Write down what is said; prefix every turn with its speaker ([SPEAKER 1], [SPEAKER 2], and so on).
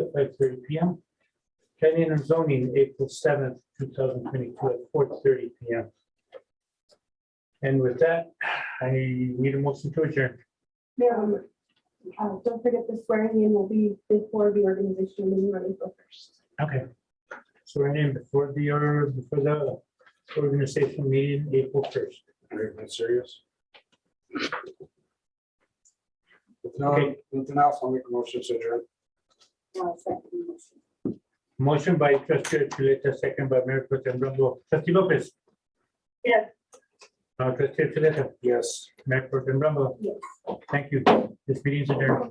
[SPEAKER 1] at five thirty P M. Planning and zoning, April seventh, two thousand twenty-two, at four thirty P M. And with that, I need a motion to adjourn.
[SPEAKER 2] Mayor, uh, don't forget the swearing in will be before the organization meeting running for first.
[SPEAKER 1] Okay. So we're in before the, or before the organizational meeting, April first.
[SPEAKER 3] Are you serious? If
[SPEAKER 1] Okay.
[SPEAKER 3] no, nothing else, I'll make a motion to adjourn.
[SPEAKER 1] Motion by trustee Chuleta, second by Mayor Pro Tem Rumble. Trustee Lopez.
[SPEAKER 2] Yes.
[SPEAKER 1] Uh, trustee Chuleta,
[SPEAKER 3] Yes.
[SPEAKER 1] Mayor Pro Tem Rumble.
[SPEAKER 2] Yes.
[SPEAKER 1] Thank you. This meeting is adjourned.